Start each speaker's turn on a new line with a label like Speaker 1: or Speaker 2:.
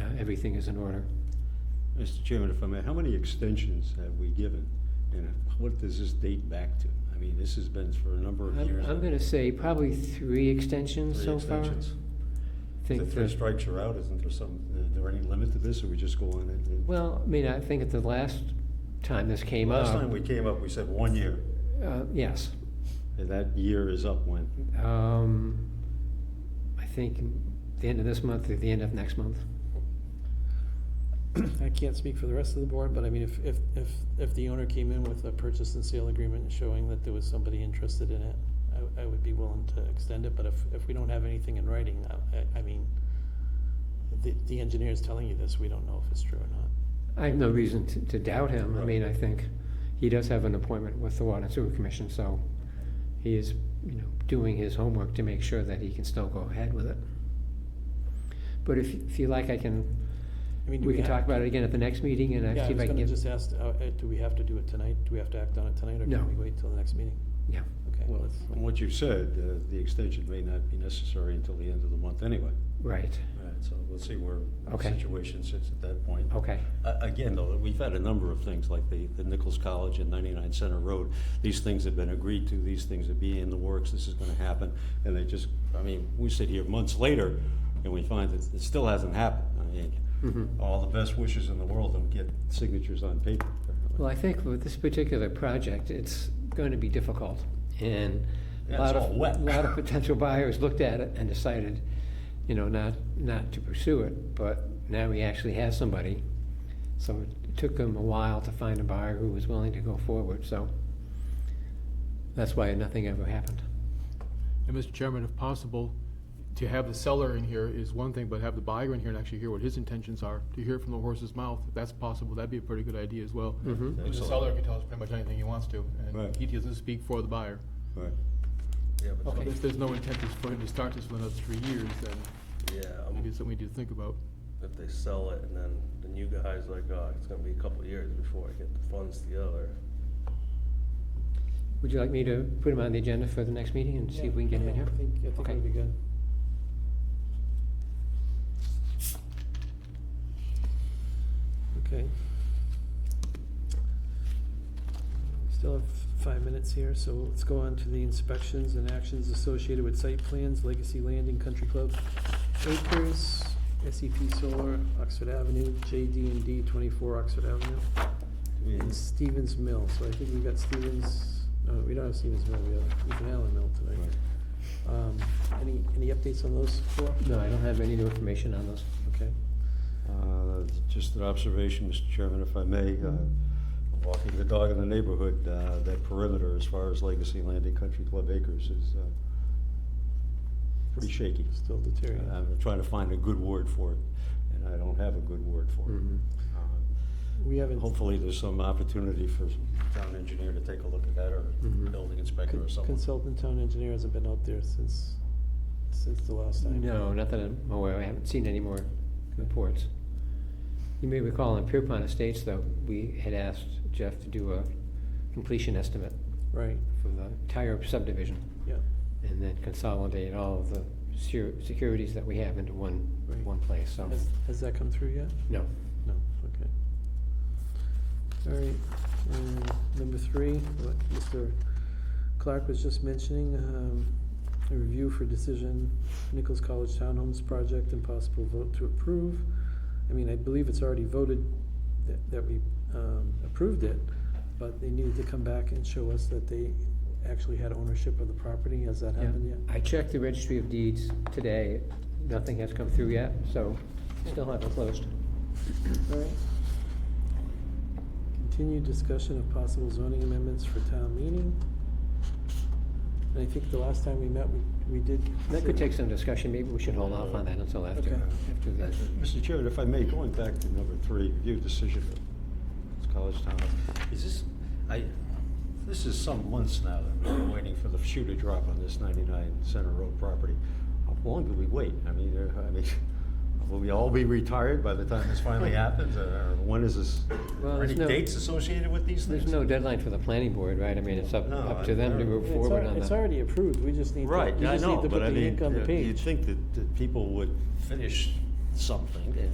Speaker 1: uh, everything is in order.
Speaker 2: Mr. Chairman, if I may, how many extensions have we given? And what does this date back to? I mean, this has been for a number of
Speaker 1: I'm,
Speaker 2: years.
Speaker 1: I'm gonna say probably three extensions
Speaker 2: Three
Speaker 1: so far.
Speaker 2: extensions. If the
Speaker 1: Think
Speaker 2: three
Speaker 1: that-
Speaker 2: strikes are out, isn't there some, are there any limit to this, or we just go on it? and-
Speaker 1: well, I mean, I think at the last time this came up.
Speaker 2: Last time we came up, we said one year,
Speaker 1: Uh, yes,
Speaker 2: and that year is up when?
Speaker 1: um, I think the end of this month or the end of next month.
Speaker 3: I can't speak for the rest of the board, but I mean, if, if, if, if the owner came in with a purchase and sale agreement showing that there was somebody interested in it, I, I would be willing to extend it, but if, if we don't have anything in writing, I, I mean, the, the engineer's telling you this, we don't know if it's true or not.
Speaker 1: I have no reason to, to doubt him. I
Speaker 2: Right.
Speaker 1: mean, I think he does have an appointment with the Water and Sewer Commission, so he is, you know, doing his homework to make sure that he can still go ahead with it. But if, if you like, I can,
Speaker 3: I mean, do
Speaker 1: we can
Speaker 3: ha-
Speaker 1: talk about it again at the next meeting and I
Speaker 3: Yeah, I
Speaker 1: see if
Speaker 3: was
Speaker 1: I can
Speaker 3: gonna
Speaker 1: get.
Speaker 3: just ask, uh, uh, do we have to do it tonight? Do we have to act on it tonight, or
Speaker 1: No.
Speaker 3: can we wait till the next meeting?
Speaker 1: Yeah,
Speaker 3: Okay,
Speaker 2: Well,
Speaker 3: let's-
Speaker 2: from what you've said, uh, the extension may not be necessary until the end of the month anyway.
Speaker 1: right,
Speaker 2: All right, so we'll see where the
Speaker 1: Okay.
Speaker 2: situation sits at that point.
Speaker 1: okay,
Speaker 2: A- Again, though, we've had a number of things, like the the Nichols College and 99 Center Road. These things have been agreed to, these things are being in the works, this is going to happen. And they just, I mean, we sit here months later, and we find that it still hasn't happened. I
Speaker 3: Mm-hmm.
Speaker 2: mean, all the best wishes in the world and get signatures on paper. apparently.
Speaker 1: Well, I think with this particular project, it's going to be difficult, and
Speaker 2: Yeah,
Speaker 1: a
Speaker 2: it's
Speaker 1: lot of,
Speaker 2: all wet.
Speaker 1: a lot of potential buyers looked at it and decided, you know, not, not to pursue it, but now he actually has somebody. So it took him a while to find a buyer who was willing to go forward, so that's why nothing ever happened.
Speaker 4: And Mr. Chairman, if possible, to have the seller in here is one thing, but have the buyer in here and actually hear what his intentions are, to hear it from the horse's mouth, if that's possible, that'd be a pretty good idea as well.
Speaker 1: Mhm.
Speaker 4: And The seller can tell us pretty much anything he wants to,
Speaker 2: Right.
Speaker 4: and he doesn't speak for the buyer.
Speaker 2: Right. Yeah, but-
Speaker 4: So
Speaker 1: Okay.
Speaker 4: If there's no intent to- for him to start this for another three years, then
Speaker 5: Yeah,
Speaker 4: maybe
Speaker 5: um,
Speaker 4: it's something we need to think about.
Speaker 5: if they sell it and then the new guy's like, oh, it's gonna be a couple of years before I get the funds together.
Speaker 1: Would you like me to put him on the agenda for the next meeting and see if we can get him in here?
Speaker 3: I think, I think
Speaker 1: Okay.
Speaker 3: that'd be good. Okay. We Still have five minutes here, so let's go on to the inspections and actions associated with site plans, Legacy Landing Country Club Acres, SEP Solar, Oxford Avenue, jd and D twenty-four Oxford Avenue, and
Speaker 2: Mm.
Speaker 3: Stevens Mill, so I think we got Stevens, no, we don't have Stevens Mill, we have Ethan Allen Mill tonight.
Speaker 2: Right.
Speaker 3: Um, any, any updates on those four?
Speaker 1: No, I don't have any new information on those.
Speaker 3: Okay.
Speaker 2: Uh, Just an observation, Mr. Chairman, if I may. uh, Walking the dog in the neighborhood, uh, that perimeter as far as Legacy Landing Country Club Acres is uh, pretty shaky.
Speaker 3: Still deteriorating.
Speaker 1: Uh,
Speaker 2: I'm trying to find a good word for it, and I don't have a good word for
Speaker 1: Mhm.
Speaker 2: it. Uh,
Speaker 3: We haven't,
Speaker 2: Hopefully, there's some opportunity for town engineer to take a look at that, or
Speaker 1: Mhm.
Speaker 2: building inspector or someone.
Speaker 3: consultant town engineer hasn't been out there since, since the last time.
Speaker 1: No, not that I'm aware, of. I haven't seen any more reports. You may recall on Pierpont Estates, though, we had asked Jeff to do a completion estimate
Speaker 3: Right,
Speaker 1: for the entire subdivision,
Speaker 3: yeah,
Speaker 1: and then consolidate all of the secu- securities that we have into one,
Speaker 3: Right.
Speaker 1: one place, so,
Speaker 3: has, has that come through yet?
Speaker 1: no.
Speaker 3: No, okay. All right, and number three, what Mr. Clark was just mentioning, um, a review for decision, Nichols College Townhomes Project and possible vote to approve. I mean, I believe it's already voted that, that we, um, approved it, but they needed to come back and show us that they actually had ownership of the property, has that
Speaker 1: Yeah.
Speaker 3: happened yet?
Speaker 1: I checked the registry of deeds today, nothing has come through yet, so still haven't closed.
Speaker 3: All right. Continued discussion of possible zoning amendments for town meeting. And I think the last time we met, we, we did.
Speaker 1: That could take some discussion, maybe we should hold off on that until after,
Speaker 3: Okay.
Speaker 1: after
Speaker 2: Uh,
Speaker 1: the
Speaker 2: Mr. Chairman, if I may, going back to number three, review decision of this college town. Is this, I, this is some months now that we've been waiting for the shoe to drop on this 99 Center Road property. How long do we wait? I mean, there- I mean, will we all be retired by the time this finally happens? Or when is this,
Speaker 1: Well,
Speaker 2: are
Speaker 1: there's
Speaker 2: any
Speaker 1: no-
Speaker 2: dates associated with these things?
Speaker 1: There's no deadline for the planning board, right? I mean, it's up,
Speaker 2: No,
Speaker 1: up to them to
Speaker 2: I-
Speaker 1: move
Speaker 3: It's
Speaker 1: forward
Speaker 3: al-
Speaker 1: on
Speaker 3: It's
Speaker 1: that.
Speaker 3: already approved, we just need to, we
Speaker 2: Right, I
Speaker 3: just
Speaker 2: know,
Speaker 3: need to put
Speaker 2: but I
Speaker 3: the
Speaker 2: mean, uh,
Speaker 3: ink on the
Speaker 2: you-
Speaker 3: page.
Speaker 2: you'd think that, that people would finish something and